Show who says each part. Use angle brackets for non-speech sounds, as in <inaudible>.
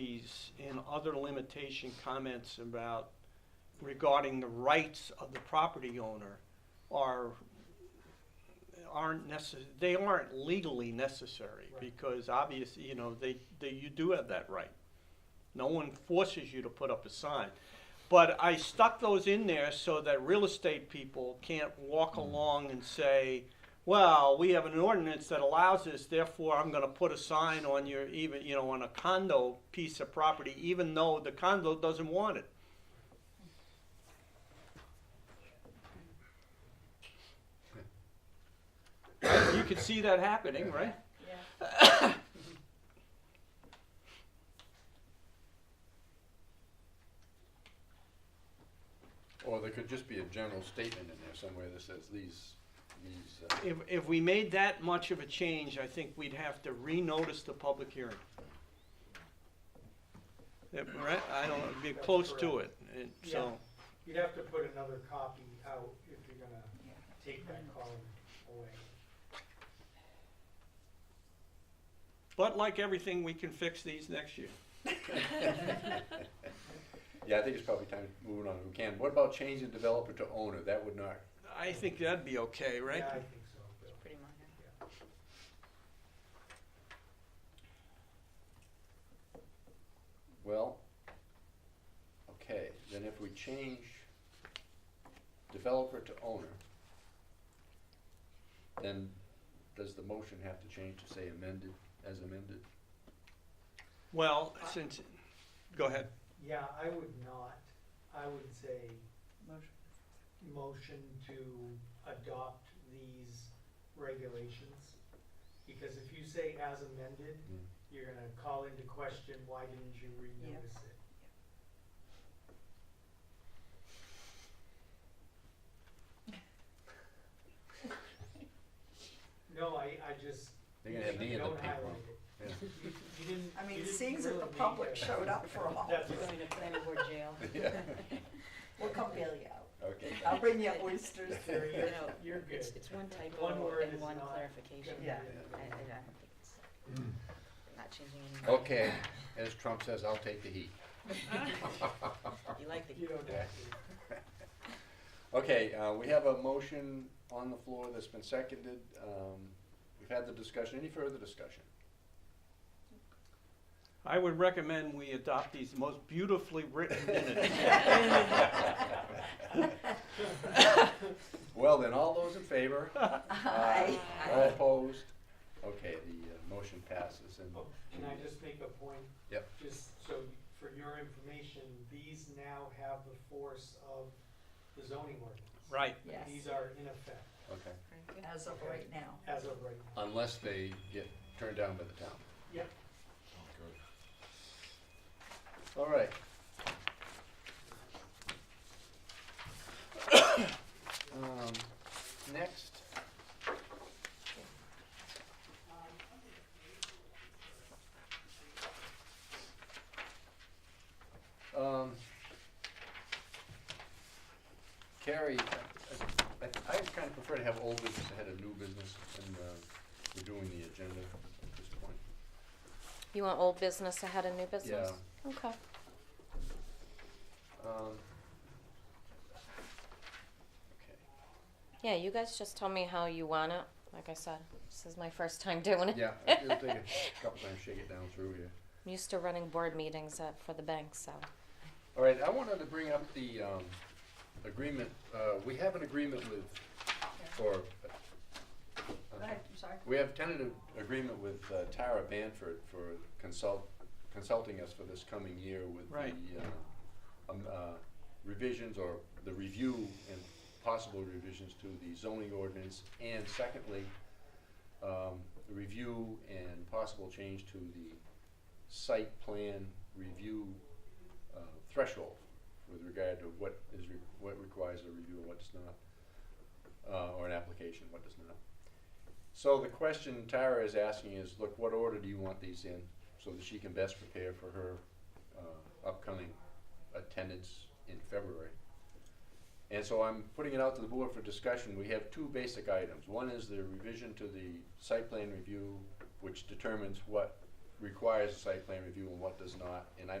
Speaker 1: fees and other limitation comments about regarding the rights of the property owner are, aren't necess, they aren't legally necessary.
Speaker 2: Right.
Speaker 1: Because obviously, you know, they, they, you do have that right. No one forces you to put up a sign. But I stuck those in there so that real estate people can't walk along and say, well, we have an ordinance that allows this, therefore I'm gonna put a sign on your, even, you know, on a condo piece of property, even though the condo doesn't want it. You could see that happening, right?
Speaker 3: Yeah.
Speaker 4: Or there could just be a general statement in there somewhere that says these, these, uh,
Speaker 1: If, if we made that much of a change, I think we'd have to renotice the public hearing. Yeah, right? I don't, know, be
Speaker 2: That's
Speaker 1: close to it,
Speaker 2: correct.
Speaker 1: and so,
Speaker 2: You'd have to put another copy out if you're gonna take that column away.
Speaker 1: but like everything, we can fix these next year.
Speaker 4: yeah, I think it's probably time to move on if we can. What about changing developer to owner? That would not,
Speaker 1: I think that'd be okay, right?
Speaker 2: Yeah, I think so, Bill.
Speaker 3: Pretty minor.
Speaker 4: well, okay, then if we change developer to owner, then does the motion have to change to say amended, as amended?
Speaker 1: Well, since, go ahead.
Speaker 2: Yeah, I would not, I would say
Speaker 3: Motion.
Speaker 2: motion to adopt these regulations. Because if you say as amended,
Speaker 4: Mm.
Speaker 2: you're gonna call into question, why didn't you renotice
Speaker 5: <laughs>
Speaker 2: it? No, I, I just,
Speaker 4: They're gonna have me
Speaker 2: you
Speaker 4: and the
Speaker 2: don't
Speaker 4: people.
Speaker 2: highlight it.
Speaker 4: Yeah.
Speaker 2: You you didn't.
Speaker 5: I
Speaker 2: you
Speaker 5: mean,
Speaker 2: didn't
Speaker 5: seeing that
Speaker 2: really
Speaker 5: the
Speaker 2: need
Speaker 5: public
Speaker 2: that.
Speaker 5: showed up
Speaker 3: <laughs>
Speaker 5: for them all,
Speaker 2: That's
Speaker 3: We're
Speaker 2: right.
Speaker 3: going to planning board jail.
Speaker 4: <laughs> Yeah,
Speaker 5: we'll come bail you out.
Speaker 4: okay.
Speaker 5: I'll bring you oysters.
Speaker 2: You're, you're-
Speaker 4: <laughs>
Speaker 3: No,
Speaker 2: you're good.
Speaker 3: It's, it's one typo
Speaker 2: One word
Speaker 3: and
Speaker 2: is
Speaker 3: one
Speaker 2: not
Speaker 3: clarification.
Speaker 2: Gonna be
Speaker 5: Yeah.
Speaker 2: it.
Speaker 3: I, I don't think it's, not changing anything.
Speaker 4: Mm. Okay, as Trump says, I'll take the heat.
Speaker 3: You like the <laughs>
Speaker 5: <laughs>
Speaker 2: You don't
Speaker 4: Yeah.
Speaker 2: have to.
Speaker 4: Okay, uh, we have a motion on the floor that's been seconded. Um, we've had the discussion. Any further discussion?
Speaker 1: I would recommend we adopt these most beautifully written minutes.
Speaker 4: Well, then, all those in favor?
Speaker 5: Aye.
Speaker 4: All opposed? Okay, the uh, motion passes and,
Speaker 2: Oh, Can I just make a point?
Speaker 4: Yep.
Speaker 2: Just so for your information, these now have the force of the zoning
Speaker 1: <laughs>
Speaker 2: ordinance.
Speaker 1: Right,
Speaker 5: Yes,
Speaker 2: These are in effect
Speaker 4: okay.
Speaker 5: as of right now.
Speaker 2: as of right now.
Speaker 4: Unless they get turned down by the town.
Speaker 2: Yep.
Speaker 4: Oh, All right. Um, next. Um, Carrie, I, I, I kinda prefer to have old business ahead of new business, and, uh, we're doing the agenda at this point.
Speaker 6: You want old business ahead of new business?
Speaker 4: Yeah.
Speaker 6: Okay.
Speaker 4: Um,
Speaker 6: Yeah, you guys just tell me how you want it. Like I said, this is my first time doing it.
Speaker 4: okay. Yeah, it'll
Speaker 6: <laughs>
Speaker 4: take a couple times, shake it down through here.
Speaker 6: I'm used to running board meetings at, for the bank, so.
Speaker 4: All right, I wanted to bring up the um, agreement. Uh, we have an agreement with, or
Speaker 5: Go ahead, I'm sorry.
Speaker 4: we have tentative agreement with uh, Tara Banford for consult consulting us for this coming year with
Speaker 1: Right.
Speaker 4: the uh, um, uh, revisions or the review and possible revisions to the zoning ordinance, and secondly, um, the review and possible change to the site plan review uh, threshold with regard to what is, re- what requires a review and what does not, uh, or an application, what does not. So the question Tara is asking is, look, what order do you want these in, so that she can best prepare for her uh, upcoming attendance in February? And so I'm putting it out to the board for discussion. We have two basic items. One is the revision to the site plan review, which determines what requires a site plan review and what does not, and I